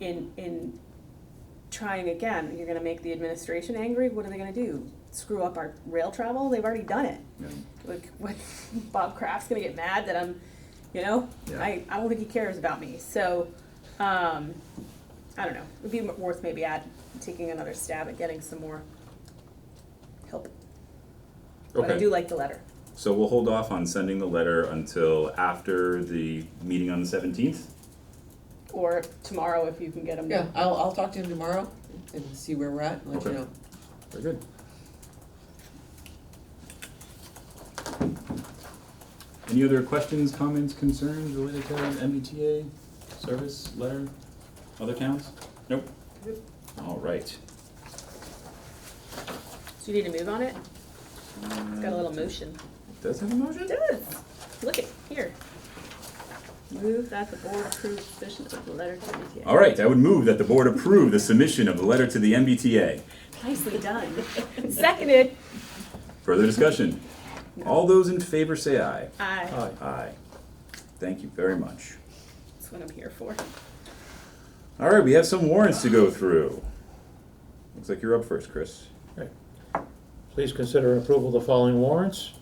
in, in trying again, you're gonna make the administration angry, what are they gonna do? Screw up our rail travel, they've already done it. Yeah. Like, what, Bob Kraft's gonna get mad that I'm, you know, Yeah. I, I don't think he cares about me, so, um, I don't know, it'd be worth maybe at, taking another stab at getting some more help. But I do Okay, like the letter. so we'll hold off on sending the letter until after the meeting on the seventeenth. Or tomorrow if you can get them. Yeah, I'll, I'll talk to him tomorrow and see where we're at and let you Okay. know. Very good. Any other questions, comments, concerns related to MBTA service letter, other towns? Nope. Nope. All right. So you need to move on it? It's got a little motion. Does it have a motion? It does. Look at, here. Move that the board approve submission of the letter to the E MBTA. All right, I would move that the board approve the submission of the letter to the MBTA. Nicely done. Seconded. Further discussion? All those in favor say aye. Aye. Aye. Thank you very much. That's what I'm here for. All right, we have some warrants to go through. Looks like you're up first, Chris. Please consider approval of the following warrants.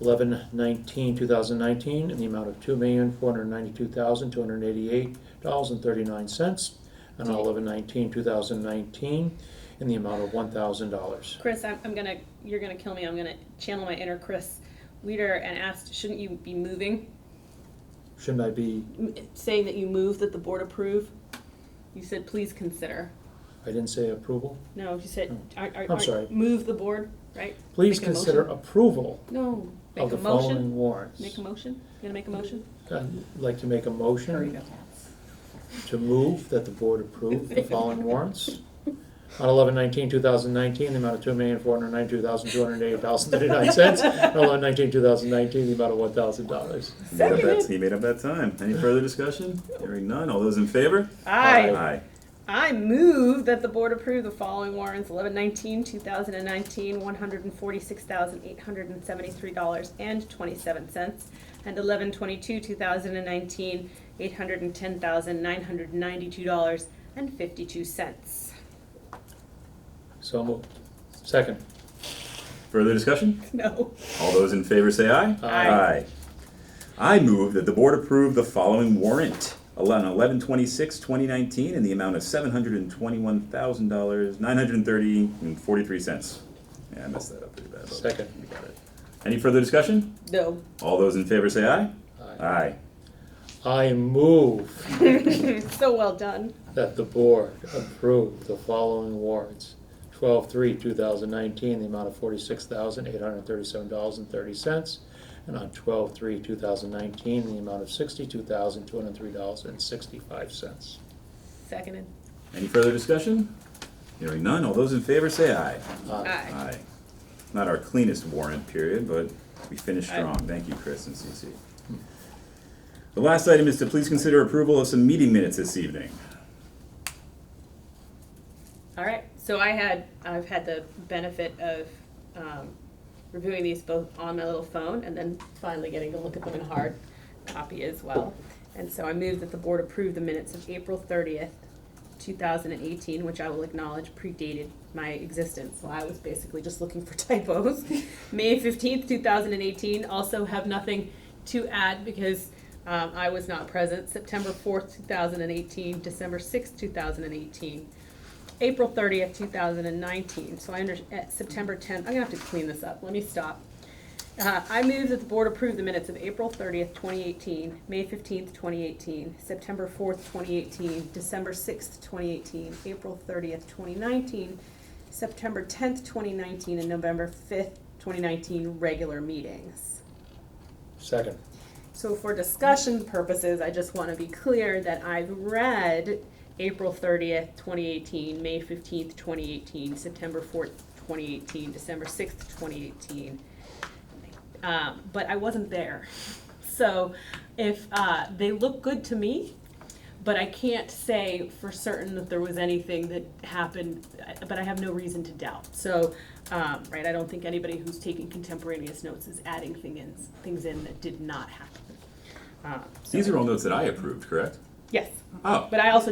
11-19-2019 in the amount of two million, four hundred ninety-two thousand, two hundred eighty-eight dollars and thirty-nine cents. And 11-19-2019 in the amount of one thousand dollars. Chris, I'm, I'm gonna, you're gonna kill me. I'm gonna channel my inner Chris leader and ask, shouldn't you be moving? Shouldn't I be, M- Saying that you move that the board approve? You said, please consider. I didn't say approval? No, you said, are, are, Oh. I'm sorry. are, move the board, right? Please Make a motion. consider approval No. Make of a the motion. following warrants. Make a motion? You gonna make a motion? I'd like to make a motion to move that the board approve the following warrants. On 11-19-2019, the amount of two million, four hundred ninety-two thousand, two hundred eighty dollars and thirty-nine cents. On 11-19-2019, the amount of one thousand dollars. He made up E that- He made up that time. Any further discussion? Hearing none. All those in favor? Aye. Aye. I move that the board approve the following warrants, eleven nineteen, two thousand and nineteen, one hundred and forty-six thousand, eight hundred and seventy-three dollars and twenty-seven cents, and eleven twenty-two, two thousand and nineteen, eight hundred and ten thousand, nine hundred and ninety-two dollars and fifty-two cents. So moved. Second. Further discussion? No. All those in favor say aye. Aye. I move that the board approve the following warrant. Eleven, eleven twenty-six, twenty nineteen, in the amount of seven hundred and twenty-one thousand dollars, nine hundred and thirty and forty-three cents. Yeah, I messed that up pretty bad. but Second. we got it. Any further discussion? No. All those in favor say aye. Aye. Aye. I move So well done. that the board approve the following warrants. 12-3-2019, the amount of forty-six thousand, eight hundred thirty-seven dollars and thirty cents. And on 12-3-2019, the amount of sixty-two thousand, two hundred three dollars and sixty-five cents. Seconded. Any further discussion? Hearing none. All those in favor say aye. Uh, Aye. Aye. Not our cleanest warrant period, but we finished strong. Thank you, Chris and CC. The last item is to please consider approval of some meeting minutes this evening. All right, so I had, I've had the benefit of um, reviewing these both on my little phone and then finally getting to look at them in hard copy as well. And so I move that the board approve the minutes of April thirtieth, two thousand and eighteen, which I will acknowledge predated my existence. So I was basically just looking for typos. May fifteenth, two thousand and eighteen, also have nothing to add because um, I was not present. September fourth, two thousand and eighteen, December sixth, two thousand and eighteen. April thirtieth, two thousand and nineteen, so I under, at September tenth, I'm gonna have to clean this up, let me stop. Uh, I move that the board approve the minutes of April thirtieth, twenty eighteen, May fifteenth, twenty eighteen, September fourth, twenty eighteen, December sixth, twenty eighteen, April thirtieth, twenty nineteen, September tenth, twenty nineteen, and November fifth, twenty nineteen, regular meetings. Second. So for discussion purposes, I just want to be clear that I've read April thirtieth, twenty eighteen, May fifteenth, twenty eighteen, September fourth, twenty eighteen, December sixth, twenty eighteen. Um, but I wasn't there. So if, uh, they look good to me, but I can't say for certain that there was anything that happened, I- but I have no reason to doubt. So, um, right, I don't think anybody who's taking contemporaneous notes is adding thing in, things in that did not happen. Uh, so- These are all notes that I approved, correct? Yes, Oh, but I also